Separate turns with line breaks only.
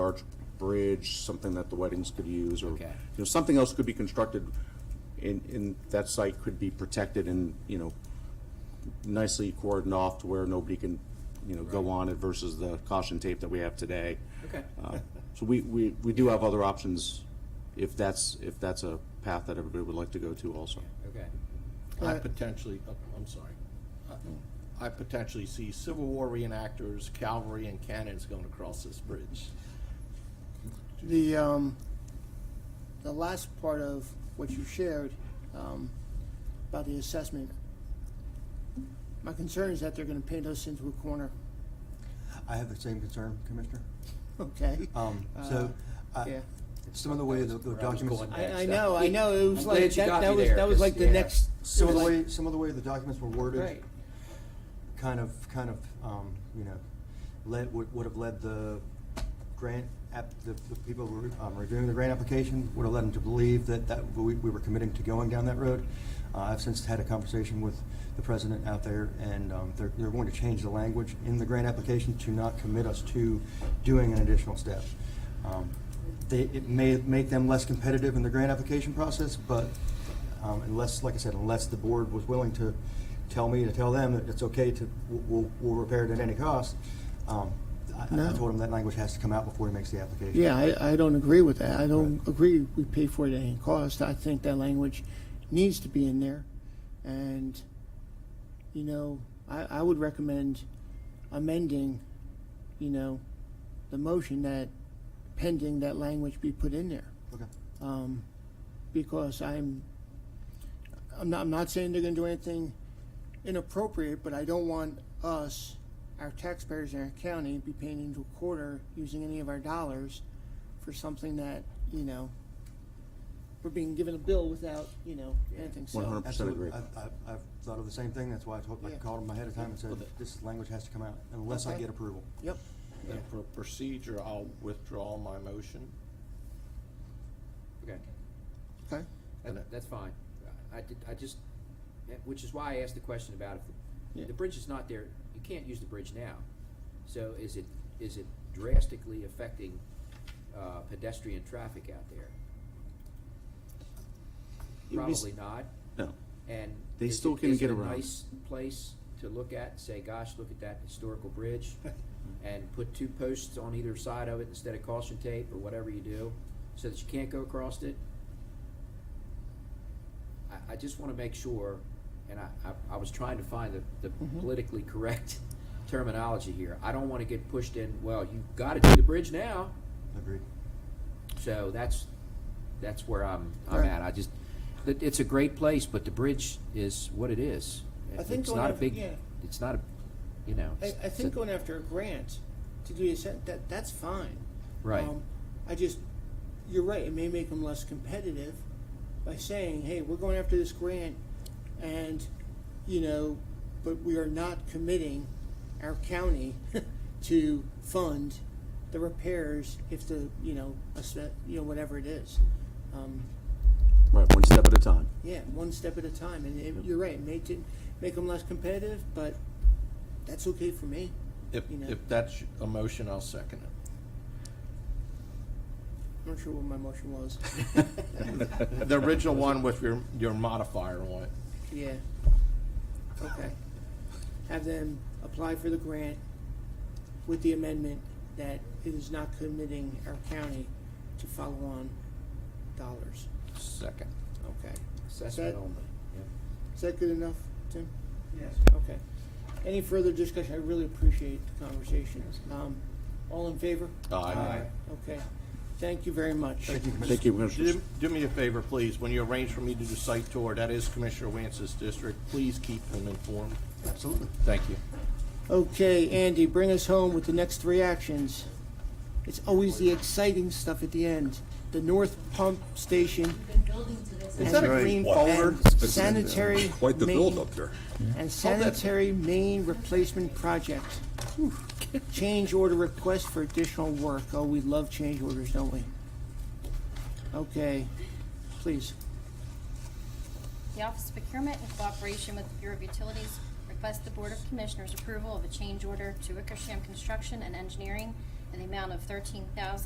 bridge, something that the weddings could use, or, you
Okay.
know, something else could be constructed in, in, that site could be protected and, you know, nicely cordoned off to where nobody can, you know, go on it versus the caution tape that we have today.
Okay.
Uh, So we, we, we do have other options if that's, if that's a path that everybody would like to go to also.
Okay.
I
But-
potentially, oh, I'm sorry. Uh, I- I potentially see Civil War reenactors, cavalry and cannons going across this bridge.
The, um, the last part of what you shared, um, about the assessment, my concern is that they're gonna paint us into a corner,
I have the same concern, Commissioner.
okay?
Um, so, uh,
Yeah.
some of the way the the
Where I was
documents,
going
I, I
next.
know, I know, it was
I'm
like,
glad you
that,
got
that
me
was,
there,
that was
'cause,
like the
yeah.
next,
some of the
like-
way, some of the way the documents were worded,
right,
kind of, kind of, um, you know, led, would, would have led the grant app, the, the people who were um, reviewing the grant application, would have led them to believe that, that we, we were committing to going down that road. Uh, I've since had a conversation with the president out there, and, um, they're, they're going to change the language in the grant application to not commit us to doing an additional step. Um, They, it may make them less competitive in the grant application process, but, um, unless, like I said, unless the board was willing to tell me, to tell them that it's okay to, we'll, we'll repair it at any cost, um, I, I
No.
told him that language has to come out before he makes the application.
yeah, I, I don't agree with that, I don't agree we pay for it at any cost, I think that language needs to be in there, and, you know, I, I would recommend amending, you know, the motion that pending that language be put in there.
Okay.
um, because I'm, I'm not, I'm not saying they're gonna do anything inappropriate, but I don't want us, our taxpayers in our county, be paying into a quarter using any of our dollars for something that, you know, we're being given a bill without, you know, anything, so.
100%.
Absolutely.
agree.
I've, I've, I've thought of the same thing, that's why I told, I
Yeah.
called him ahead of time and said,
Well, the-
this language has to come out unless I
Okay.
get approval.
Yep,
And for procedure, I'll withdraw my motion.
Okay.
okay,
That- That's fine. I did, I just, eh, which is why I asked the question about
Yeah.
if the bridge is not there, you can't use the bridge now. So is it, is it drastically affecting uh, pedestrian traffic out there?
It was-
Probably not.
No.
And
They
is
still
it-
can
is
get
it a
around.
nice place to look at and say, gosh, look at that historical bridge? And put two posts on either side of it instead of caution tape or whatever you do, so that you can't go across it? I, I just wanna make sure, and I, I, I was trying to find the, the
Mm-hmm.
politically correct terminology here. I don't wanna get pushed in, well, you've gotta do the bridge now.
Agreed.
So that's, that's where I'm, I'm
Right.
at. I just, it, it's a great place, but the bridge is what it is.
I think
It's
going
not a
up-
big,
yeah.
it's not a, you know.
I, I
it's-
think
it's a-
going after a grant to do this, that, that's fine.
Right.
Um, I just, you're right, it may make them less competitive by saying, hey, we're going after this grant and, you know, but we are not committing our county to fund the repairs if the, you know, a set, you know, whatever it is. Um,
Right, one step at a time.
yeah, one step at a time, and it- you're right, make it, make them less competitive, but that's okay for me.
If,
You know.
if that's a motion, I'll second it.
I'm not sure what my motion was.
The original one with your, your modifier on it.
Yeah. Okay. Have them apply for the grant with the amendment that it is not committing our county to follow-on dollars.
Second.
Okay.
Assessment
That-
only.
Is that good enough, Tim?
Yes.
Okay. Any further discussion? I really appreciate the conversation. Um, all in favor?
Aye.
Okay. Thank you very much.
Thank you, Commissioner.
Thank you, Commissioners.
Do, do me a favor, please, when you arrange for me to do site tour, that is Commissioner Wance's district, please keep him informed.
Absolutely.
Thank you.
Okay, Andy, bring us home with the next three actions. It's always the exciting stuff at the end. The North Pump Station
We've been building to this.
and
that a green folder?
and Sanitary.
Quite the
main-
build up there.
And sanitary main replacement project. Change order request for additional work. Oh, we love change orders, don't we? Okay, please.
The Office of Procurement in cooperation with the Bureau of Utilities requests the Board of Commissioners approval of a change order to Wickersham Construction and Engineering in the amount of thirteen thousand